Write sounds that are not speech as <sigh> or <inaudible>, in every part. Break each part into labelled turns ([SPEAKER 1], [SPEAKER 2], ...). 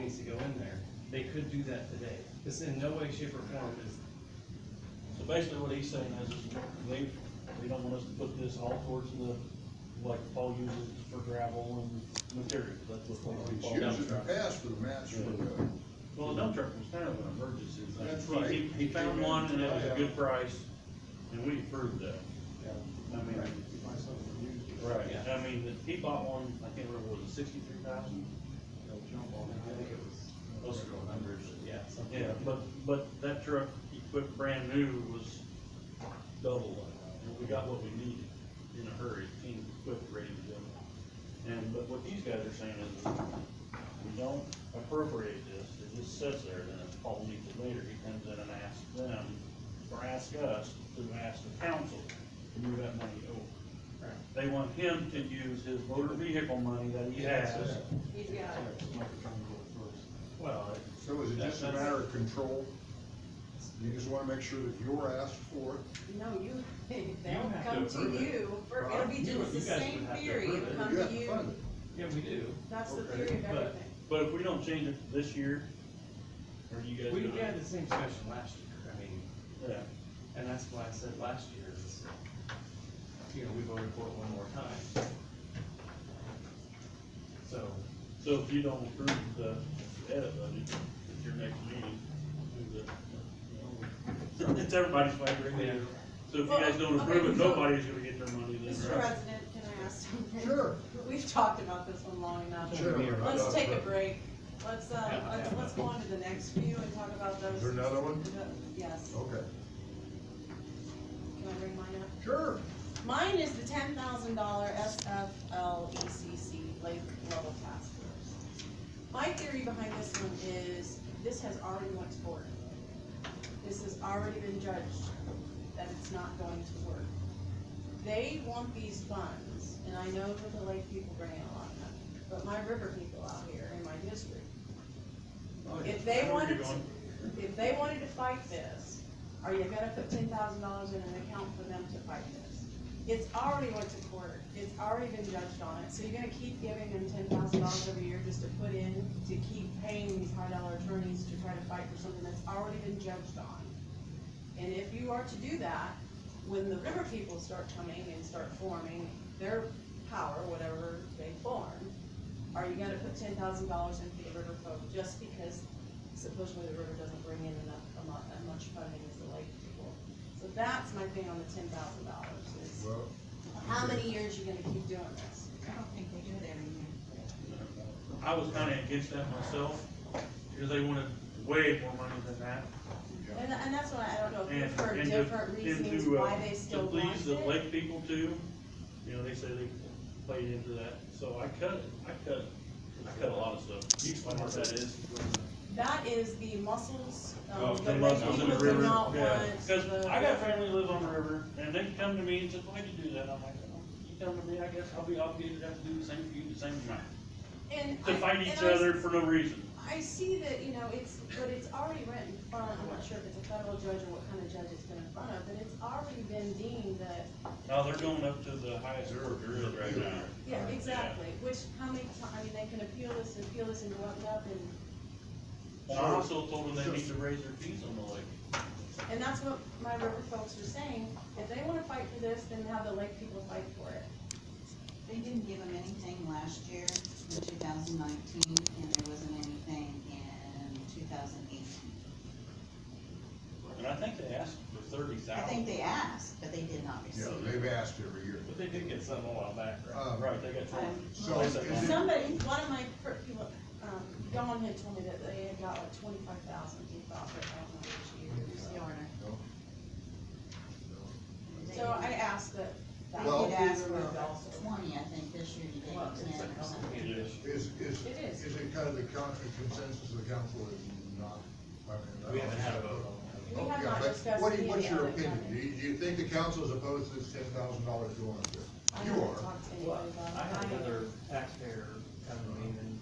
[SPEAKER 1] needs to go in there. They could do that today. This in no way, shape, or form is,
[SPEAKER 2] So basically what he's saying is, is they, they don't want us to put this all towards the, like Paul uses for gravel and materials, that's what Paul.
[SPEAKER 3] It's
[SPEAKER 2] Paul-
[SPEAKER 3] used in the past for the mats for the,
[SPEAKER 4] Well, the dump truck was kind of an emergency. thing.
[SPEAKER 3] That's
[SPEAKER 4] He-
[SPEAKER 3] right.
[SPEAKER 4] He, he found one and it was a good price, and we approved that. I mean, right, I mean, the- he bought one, I can't remember, was it sixty-three thousand?
[SPEAKER 1] I think it was,
[SPEAKER 4] Those are the numbers.
[SPEAKER 1] yeah, something.
[SPEAKER 4] Yeah, but, but that truck, he put brand new was double that, and we got what we needed in a hurry, came quick, ready to go. And, but what these guys are saying is, we don't appropriate this, it just sits there, then if Paul needs it later, he comes in and asks them, or asks us, to ask the council to move that money over. They want him to use his motor vehicle money that he has.
[SPEAKER 5] He's got it.
[SPEAKER 4] Well, it-
[SPEAKER 3] so is it just a matter of control? You just wanna make sure that you're asked for it,
[SPEAKER 5] No, you, <laughs>
[SPEAKER 2] don't
[SPEAKER 5] they'll
[SPEAKER 2] have to
[SPEAKER 5] come
[SPEAKER 2] approve
[SPEAKER 5] to
[SPEAKER 2] it.
[SPEAKER 5] you, for- it'll be
[SPEAKER 4] You-
[SPEAKER 5] just the
[SPEAKER 4] you guys would
[SPEAKER 5] same
[SPEAKER 4] have to
[SPEAKER 5] theory,
[SPEAKER 4] approve it.
[SPEAKER 5] it'll come
[SPEAKER 3] you
[SPEAKER 5] to
[SPEAKER 3] have to fund
[SPEAKER 5] you,
[SPEAKER 3] it.
[SPEAKER 1] Yeah, we do.
[SPEAKER 5] that's the
[SPEAKER 3] Okay,
[SPEAKER 5] theory of
[SPEAKER 1] but-
[SPEAKER 5] everything.
[SPEAKER 4] but if we don't change it this year, or you guys.
[SPEAKER 1] We
[SPEAKER 4] gonna-
[SPEAKER 1] had the same discussion last year, I mean,
[SPEAKER 4] Yeah.
[SPEAKER 1] and that's why I said last year is, you know, we voted for it one more time. So,
[SPEAKER 4] So if you don't approve the edit budget at your next meeting, do the. It's everybody's favorite.
[SPEAKER 1] Yeah.
[SPEAKER 4] So if you guys don't approve it,
[SPEAKER 5] Well, okay, so-
[SPEAKER 4] nobody's gonna get their money then,
[SPEAKER 5] Mr.
[SPEAKER 4] right?
[SPEAKER 5] President, can I ask something?
[SPEAKER 3] Sure.
[SPEAKER 5] <laughs> We've talked about this one long enough.
[SPEAKER 3] Sure.
[SPEAKER 5] Let's take a break, let's, uh,
[SPEAKER 1] Yeah,
[SPEAKER 5] let's,
[SPEAKER 1] yeah.
[SPEAKER 5] let's go on to the next few and talk about those.
[SPEAKER 3] Is there another one?
[SPEAKER 5] Yes,
[SPEAKER 3] Okay.
[SPEAKER 5] can I bring mine up?
[SPEAKER 3] Sure.
[SPEAKER 5] Mine is the ten thousand dollar SFLECC E lake level task force. My theory behind this one is, this has already went to board. This has already been judged that it's not going to work. They want these funds, and I know that the lake people bring in a lot of money, but my river people out here in my district, if
[SPEAKER 4] I
[SPEAKER 5] they
[SPEAKER 4] know where
[SPEAKER 5] wanted
[SPEAKER 4] you're
[SPEAKER 5] to,
[SPEAKER 4] going.
[SPEAKER 5] if they wanted to fight this, are you gonna put ten thousand dollars in an account for them to fight this? It's already went to court, it's already been judged on it, so you're gonna keep giving them ten thousand dollars every year just to put in, to keep paying these high dollar attorneys to try to fight for something that's already been judged on. And if you are to do that, when the river people start coming and start forming their power, whatever they form, are you gonna put ten thousand dollars into the river folk just because supposedly the river doesn't bring in enough, a lot, that much funding as the lake people? So that's my thing on the ten thousand dollars is,
[SPEAKER 3] Well,
[SPEAKER 5] how many years you gonna keep doing this?
[SPEAKER 6] I don't think they do it every year.
[SPEAKER 4] I was kinda against that myself, because they wanted way more money than that.
[SPEAKER 5] And, and that's why I don't know, if
[SPEAKER 4] And,
[SPEAKER 5] you've heard
[SPEAKER 4] and
[SPEAKER 5] different
[SPEAKER 4] to, and
[SPEAKER 5] reasons
[SPEAKER 4] to,
[SPEAKER 5] why
[SPEAKER 4] uh,
[SPEAKER 5] they
[SPEAKER 4] to
[SPEAKER 5] still want
[SPEAKER 4] please the
[SPEAKER 5] it.
[SPEAKER 4] lake people too, you know, they say they played into that, so I cut it, I cut it. I cut a lot of stuff. You explain what that is?
[SPEAKER 5] That is the mussels,
[SPEAKER 4] Oh,
[SPEAKER 5] um, the
[SPEAKER 4] they
[SPEAKER 5] lake
[SPEAKER 4] must live in
[SPEAKER 5] people
[SPEAKER 4] the
[SPEAKER 5] do
[SPEAKER 4] river,
[SPEAKER 5] not
[SPEAKER 4] yeah.
[SPEAKER 5] want
[SPEAKER 4] Cause
[SPEAKER 5] the-
[SPEAKER 4] I got family lives on the river, and they come to me and says, why'd you do that? I'm like, "Oh, you come to me, I guess I'll be obligated to have to do the same for you, the same amount.
[SPEAKER 5] And
[SPEAKER 4] To
[SPEAKER 5] I-
[SPEAKER 4] fight
[SPEAKER 5] and
[SPEAKER 4] each
[SPEAKER 5] I-
[SPEAKER 4] other for no reason.
[SPEAKER 5] I see that, you know, it's, but it's already written in front of, I'm not sure if it's a federal judge or what kind of judge it's been in front of, but it's already been deemed that,
[SPEAKER 4] Now, they're going up to the highest order right now.
[SPEAKER 5] yeah, exactly, which, how many times, I mean, they can appeal this and appeal this and go up and up and,
[SPEAKER 4] And I also told them they need to raise their fees on the lake.
[SPEAKER 5] and that's what my river folks are saying. If they wanna fight for this, then have the lake people fight for it.
[SPEAKER 6] They didn't give them anything last year, in two thousand nineteen, and there wasn't anything in two thousand eighteen.
[SPEAKER 4] And I think they asked for thirty
[SPEAKER 6] I
[SPEAKER 4] thousand.
[SPEAKER 6] think they asked, but they did not
[SPEAKER 3] yeah,
[SPEAKER 6] receive.
[SPEAKER 3] they've asked every year.
[SPEAKER 1] but they did get some a while back, right?
[SPEAKER 3] Uh,
[SPEAKER 4] Right, they got told.
[SPEAKER 3] So is it-
[SPEAKER 5] Somebody, one of my per- people, um, Dawn had told me that they had got like twenty-five thousand, he thought, but I don't know which year.
[SPEAKER 6] Here's the order.
[SPEAKER 3] No.
[SPEAKER 6] They-
[SPEAKER 5] So I asked that. that
[SPEAKER 6] They
[SPEAKER 3] Well-
[SPEAKER 6] did
[SPEAKER 5] be
[SPEAKER 6] ask
[SPEAKER 5] removed
[SPEAKER 6] for
[SPEAKER 5] also.
[SPEAKER 6] twenty, I think, this year, you gave
[SPEAKER 1] Well,
[SPEAKER 6] them
[SPEAKER 1] it's
[SPEAKER 6] ten
[SPEAKER 1] a
[SPEAKER 6] or something.
[SPEAKER 1] complicated issue.
[SPEAKER 3] Is, is,
[SPEAKER 5] It is.
[SPEAKER 3] is it kind of the coun- the consensus of the council is not? I mean, I don't-
[SPEAKER 1] We haven't had a vote on that.
[SPEAKER 5] We have
[SPEAKER 3] Yeah,
[SPEAKER 5] not
[SPEAKER 3] but
[SPEAKER 5] discussed
[SPEAKER 3] what do
[SPEAKER 5] any
[SPEAKER 3] you-
[SPEAKER 5] of
[SPEAKER 3] What's
[SPEAKER 5] the
[SPEAKER 3] your
[SPEAKER 5] other
[SPEAKER 3] opinion? Do
[SPEAKER 5] comments.
[SPEAKER 3] you, do you think the council is opposed to this ten thousand dollars going up
[SPEAKER 5] I
[SPEAKER 3] there? You
[SPEAKER 5] haven't
[SPEAKER 3] are.
[SPEAKER 5] talked to
[SPEAKER 1] Well,
[SPEAKER 5] anybody about it.
[SPEAKER 1] I had
[SPEAKER 5] um, I-
[SPEAKER 1] another taxpayer come to me and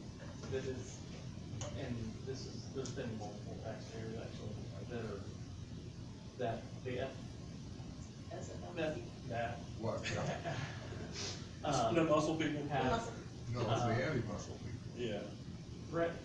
[SPEAKER 1] this is, and this is, there's been multiple taxpayers actually that are, that, they,
[SPEAKER 5] that's about
[SPEAKER 1] that,
[SPEAKER 5] it.
[SPEAKER 1] that.
[SPEAKER 3] What? Yeah.
[SPEAKER 4] The
[SPEAKER 1] Um,
[SPEAKER 4] muscle people.
[SPEAKER 1] have,
[SPEAKER 6] Um,
[SPEAKER 1] Uh,
[SPEAKER 3] No, it's the anti-muscle people.
[SPEAKER 4] Yeah.
[SPEAKER 1] Brett,